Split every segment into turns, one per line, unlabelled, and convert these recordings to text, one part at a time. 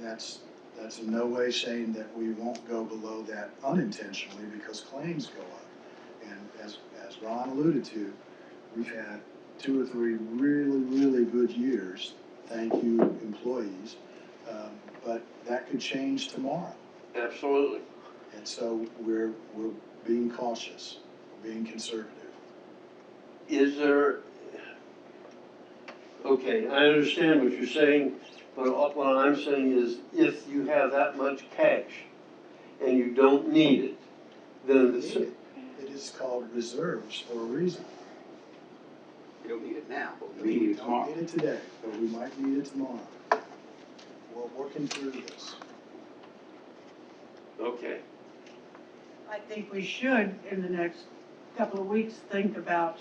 that's, that's in no way saying that we won't go below that unintentionally because claims go up. And as, as Ron alluded to, we've had two or three really, really good years, thank you employees. Um, But that could change tomorrow.
Absolutely.
And so we're, we're being cautious, we're being conservative.
Is there, okay, I understand what you're saying, but all- what I'm saying is if you have that much cash and you don't need it, then it's,
It is called reserves for a reason.
You don't need it now, but we need
We
it
don't
tomorrow.
need it today, but we might need it tomorrow. We're working through this.
okay.
I think we should, in the next couple of weeks, think about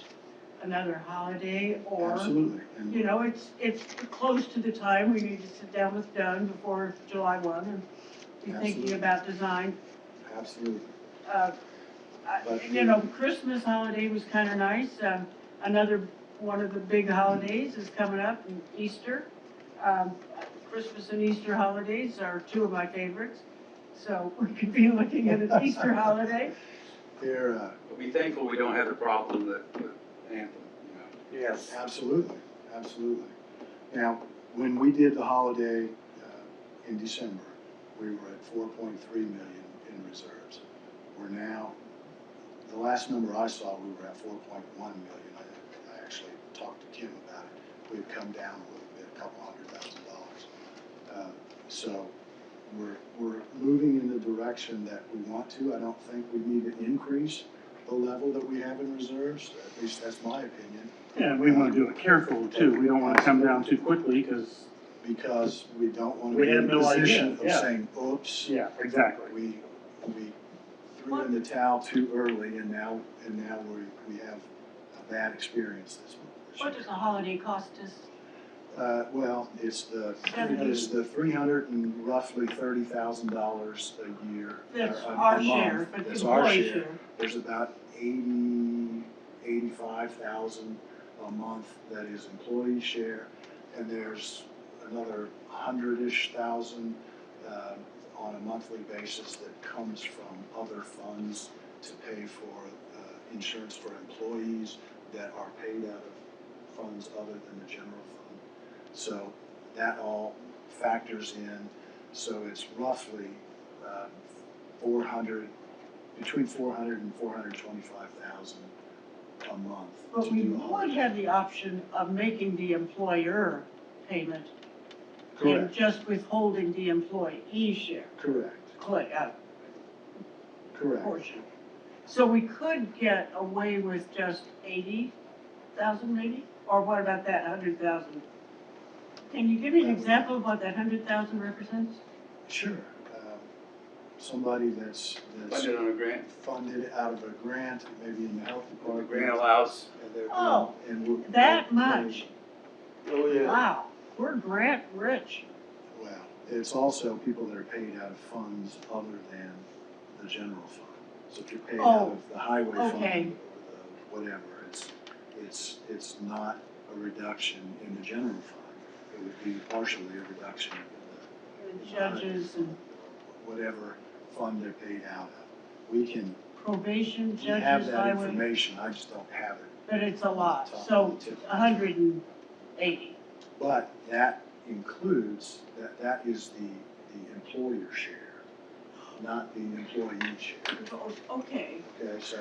another holiday or,
Absolutely. And
you know, it's, it's close to the time we need to sit down with Dunn before July one and be
Absolutely.
thinking about design.
Absolutely.
Uh, I-
But-
You know, Christmas holiday was kind of nice. Um, Another, one of the big holidays is coming up, and Easter. Um, Christmas and Easter holidays are two of my favorites. So we could be looking at an Easter holiday.
They're, uh,
But be thankful we don't have the problem that, with Anthem, you know.
Yes.
absolutely, absolutely. Now, when we did the holiday, uh, in December, we were at four point three million in reserves. We're now, the last number I saw, we were at four point one million. I, I actually talked to Kim about it. We've come down a little bit, a couple hundred thousand dollars. Uh, So we're, we're moving in the direction that we want to. I don't think we need to increase the level that we have in reserves, at least that's my opinion,
Yeah, we wanna do it careful too, we don't wanna come down too quickly, cause,
because we don't want to
We
be in
have
a
no idea,
position of
yeah.
saying, oops,
yeah, exactly.
we, we threw in the towel too early and now, and now we, we have a bad experience this
What
month.
does a holiday cost us?
Uh, well, it's the,
Seventy.
it's the three hundred and roughly thirty thousand dollars a year.
That's
or Uh, a- a
our share,
month.
but the
That's our
employee
share.
share.
There's about eighty, eighty-five thousand a month that is employee share, and there's another hundred-ish thousand um, on a monthly basis that comes from other funds to pay for uh, insurance for employees that are paid out of funds other than the general fund. So that all factors in, so it's roughly um, four hundred between four hundred and four hundred twenty-five thousand a month to
But we
do all
would
that.
have the option of making the employer payment and
Correct,
just withholding the employee share,
correct,
cl- uh,
correct.
portion. So we could get away with just eighty thousand maybe, or what about that hundred thousand? Can you give me an example of what that hundred thousand represents?
Sure. Um, Somebody that's, that's
Funded on a grant,
funded out of a grant, maybe in the health
the
department.
grant allows,
and they're-
Oh,
and we're-
that much?
Oh, yeah.
Wow, we're grant rich.
Well, it's also people that are paid out of funds other than the general fund. So if you're paid out
Oh,
of the highway
okay.
fund or the whatever, it's, it's, it's not a reduction in the general fund. It would be partially a reduction in
The Judges
the,
and
whatever fund they're paid out of. We can,
probation,
we have
judges,
that
highway,
information, I just don't have it.
but it's a lot,
off the
so
tip of my
a hundred and eighty.
But that includes, that, that is the, the employer share, not the employee share.
Okay,
Okay, so,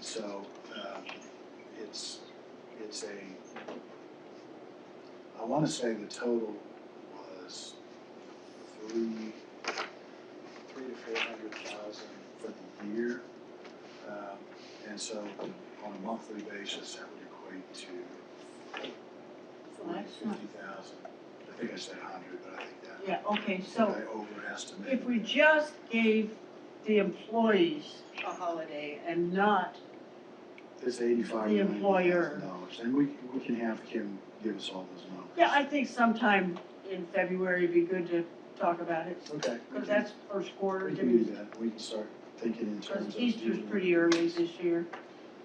so, uh, it's, it's a, I wanna say the total was three, three to four hundred thousand for the year. Um, and so on a monthly basis, that would equate to
Well,
forty,
that's not-
fifty thousand. I think I said hundred, but I think that,
yeah, okay,
I
so
overestimated.
if we
that.
just gave the employees a holiday and not,
It's eighty-five
The
million
employer.
dollars, and we, we can have Kim give us all those numbers.
yeah, I think sometime in February it'd be good to talk about it,
Okay. we
because
can-
that's first quarter,
We can do that, we can start thinking in terms
because
of.
Easter's
doing-
pretty early this year.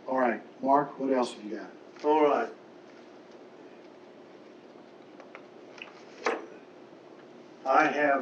All right, Mark, what else have you got?
All right. I have